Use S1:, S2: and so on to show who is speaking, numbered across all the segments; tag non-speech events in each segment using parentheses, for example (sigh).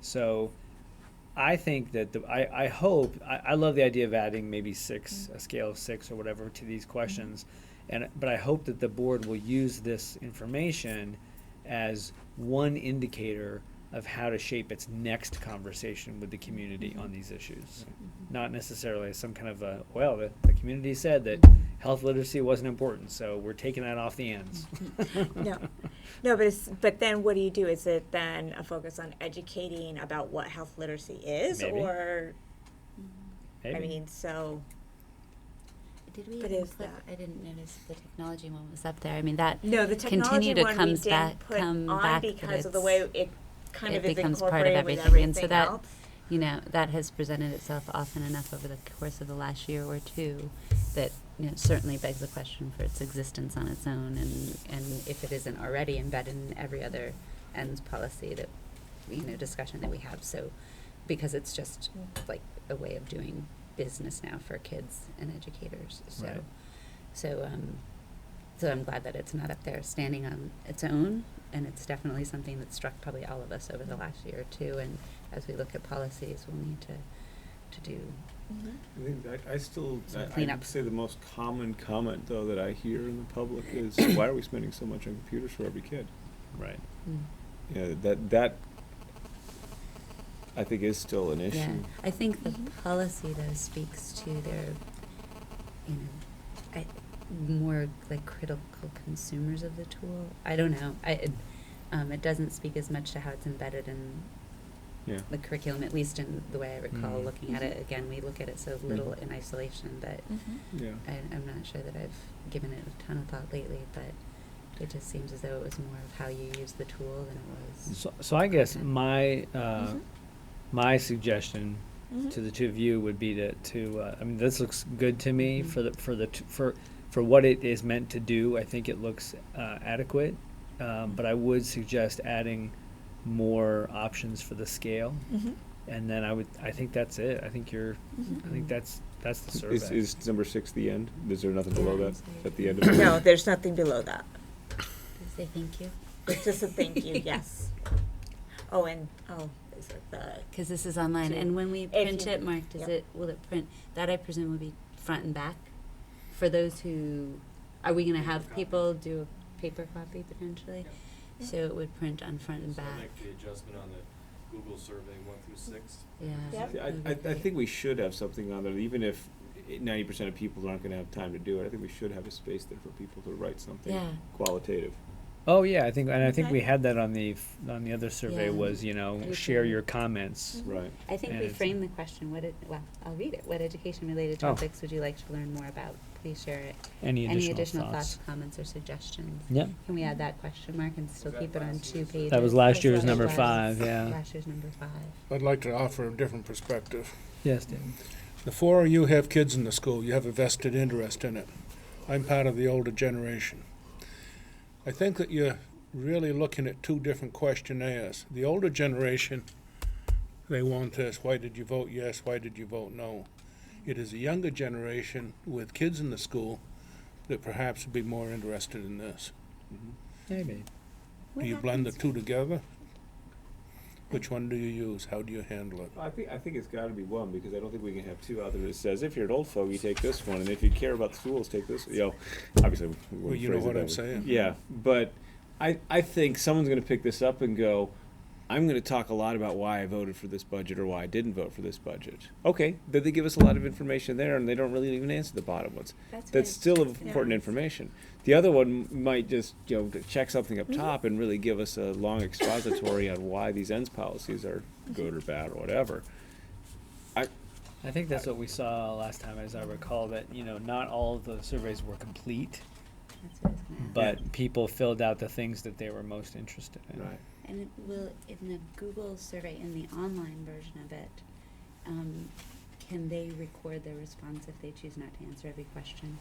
S1: So I think that the, I, I hope, I, I love the idea of adding maybe six, a scale of six or whatever to
S2: Mm-hmm.
S1: these questions. And, but I hope that the board will use this information as one indicator of how to shape its next conversation with the
S2: Mm-hmm.
S1: community on these issues. Not necessarily as some kind of a, well, the, the community said that health literacy wasn't important, so we're taking that off the ends.
S2: (laughs) No, no, but it's, but then what do you do? Is it then a focus on educating about what health literacy is,
S1: Maybe.
S2: or
S3: Mm.
S2: I
S1: (laughs) Maybe.
S2: mean, so
S3: Did we
S2: But
S3: even
S2: is
S3: put,
S2: that-
S3: I didn't notice if the technology one was up there. I mean, that
S2: no, the technology
S3: Continued, it
S2: one
S3: comes
S2: we didn't
S3: back-
S2: put
S3: come
S2: on
S3: back, but
S2: because of the
S3: it's-
S2: way it kind
S3: it
S2: of is
S3: becomes part of
S2: incorporated with
S3: everything, and so
S2: everything
S3: that-
S2: else.
S3: you know that has presented itself often enough over the course of the last year or two that you know, certainly begs the question for its existence on its own, and and if it isn't already embedded in every other ends policy that you know discussion that we have. So because it's just
S2: Mm.
S3: like a way of doing business now for kids and educators. So
S1: Right.
S3: so um, so I'm glad that it's not up there standing on its own, and it's definitely something that struck probably all of us over the last year or two. And as we look at policies, we'll need to to do.
S1: Mm-hmm.
S4: I think that, I still,
S3: Some
S4: I- I'd
S3: cleanup.
S4: say the most common comment, though, that I hear in the public is, (coughs) why are we spending so much on computers for every kid?
S1: Right.
S4: You know, that, that, I think is still an
S3: Yeah,
S4: issue.
S3: I think the policy though speaks to their, you know, I, more like critical consumers of the tool. I don't know. I it, um, it doesn't speak as much to how it's embedded in
S4: Yeah.
S3: the curriculum, at least in the way I recall
S1: Mm.
S3: looking at it. Again, we look at it so little in isolation that
S1: Mm-hmm.
S4: Yeah.
S3: I, I'm not sure that I've given it a ton of thought lately, but it just seems as though it was more of how you use the tool than it was.
S1: So, so I guess
S3: Okay.
S1: my, uh,
S2: Mhm.
S1: my suggestion
S2: Mhm.
S1: to the two of you would be to, to, uh, I mean, this looks good to me
S3: Mhm.
S1: for the, for the, t- for, for what it is meant to do. I think it looks, uh, adequate. Um, but I would suggest adding more options for the scale.
S2: Mhm.
S1: And then I would, I think that's it. I think you're, I think
S3: Mhm.
S1: that's, that's the
S4: Is,
S1: survey.
S4: is number six the end? Is there nothing below
S3: Yeah,
S4: that,
S3: it's like-
S4: at the end of it?
S2: No, there's nothing below that.
S3: Did I say thank you?
S2: It's just a thank
S1: (laughs)
S2: you. Yes. Oh, and oh, is it the
S3: Because this is online,
S2: To-
S3: and when we
S2: if
S3: print
S2: you-
S3: it, Mark, does
S2: yep.
S3: it, will it print, that I presume will be front and back? For those who, are we gonna have people do a paper copy potentially?
S2: Yep.
S3: So it would print on front and
S5: So
S3: back,
S5: make the adjustment on the Google survey one through six.
S3: yeah.
S2: Yep.
S4: I, I, I think we should have something on there, even if ninety percent of people aren't gonna have time to do it, I think we should have a space there for people to write something
S3: Yeah.
S4: qualitative.
S1: Oh, yeah, I think, and I think
S2: Okay.
S1: we had that on the, f- on the other survey
S3: Yeah.
S1: was, you know,
S3: You
S1: share
S3: can-
S1: your comments.
S4: Right.
S3: I think
S1: And
S3: we
S1: it's-
S3: framed the question, what, it- well, I'll read it, what education-related
S1: Oh.
S3: topics would you like to learn more about? Please share it.
S1: Any
S3: Any
S1: additional
S3: additional thoughts,
S1: thoughts?
S3: comments, or suggestions?
S1: Yep.
S3: Can we add that question mark and still
S5: Was that
S3: keep it on
S5: last
S3: two
S5: year's?
S3: pages?
S1: That was last
S3: That's
S1: year's
S3: last
S1: number
S3: year's-
S1: five, yeah.
S3: Last year's number five.
S6: I'd like to offer a different perspective.
S1: Yes, David.
S6: The four of you have kids in the school, you have a vested interest in it. I'm part of the older generation. I think that you're really looking at two different questionnaires. The older generation, they want this why did you vote yes, why did you vote no? It is a younger generation with kids in the school that perhaps would be more interested in this.
S1: Maybe.
S6: Do you blend the two together? Which one do you use? How do you handle it?
S4: I think, I think it's gotta be one, because I don't think we can have two out there that says, if you're an old fogey, take this one, and if you care about the schools, take this, you know, obviously. we wouldn't
S6: Well, you know
S4: phrase it
S6: what
S4: that
S6: I'm
S4: way.
S6: saying.
S4: Yeah, but I, I think someone's gonna pick this up and go, I'm gonna talk a lot about why I voted for this budget or why I didn't vote for this budget. Okay, then they give us a lot of information there, and they don't really even answer the bottom ones. That's still important information. The other one might just, you know, check something up top and really give us a long expository on why these ends policies are good or bad or whatever.
S1: I think that's what we saw last time, as I recall, that, you know, not all of the surveys were complete,
S3: That's what I was gonna ask.
S1: but people filled out the things that they were most interested in.
S3: And it will, in the Google survey, in the online version of it, um, can they record their response if they choose not to answer every question?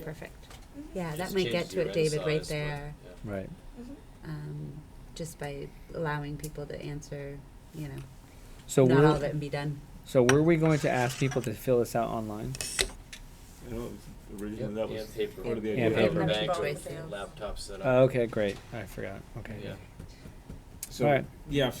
S3: Mm-hmm. Perfect. Yeah, Uh, that
S5: Just
S3: might
S5: change
S3: get
S5: the
S3: to it,
S5: red
S3: David, right
S5: size, but-
S3: there.
S5: yeah.
S1: Right.
S3: Um, just by allowing people to answer, you know,
S1: So
S3: not all of
S1: were,
S3: it and be done.
S1: so were we going to ask people to fill this out online?
S4: I know, it was originally that was
S5: And paper.
S4: part of the
S1: And
S4: idea.
S1: paper.
S5: Paper bags
S3: Both.
S5: or laptop setup.
S1: Oh, okay, great. I forgot. Okay.
S5: Yeah.
S4: So,
S1: Alright.
S4: yeah,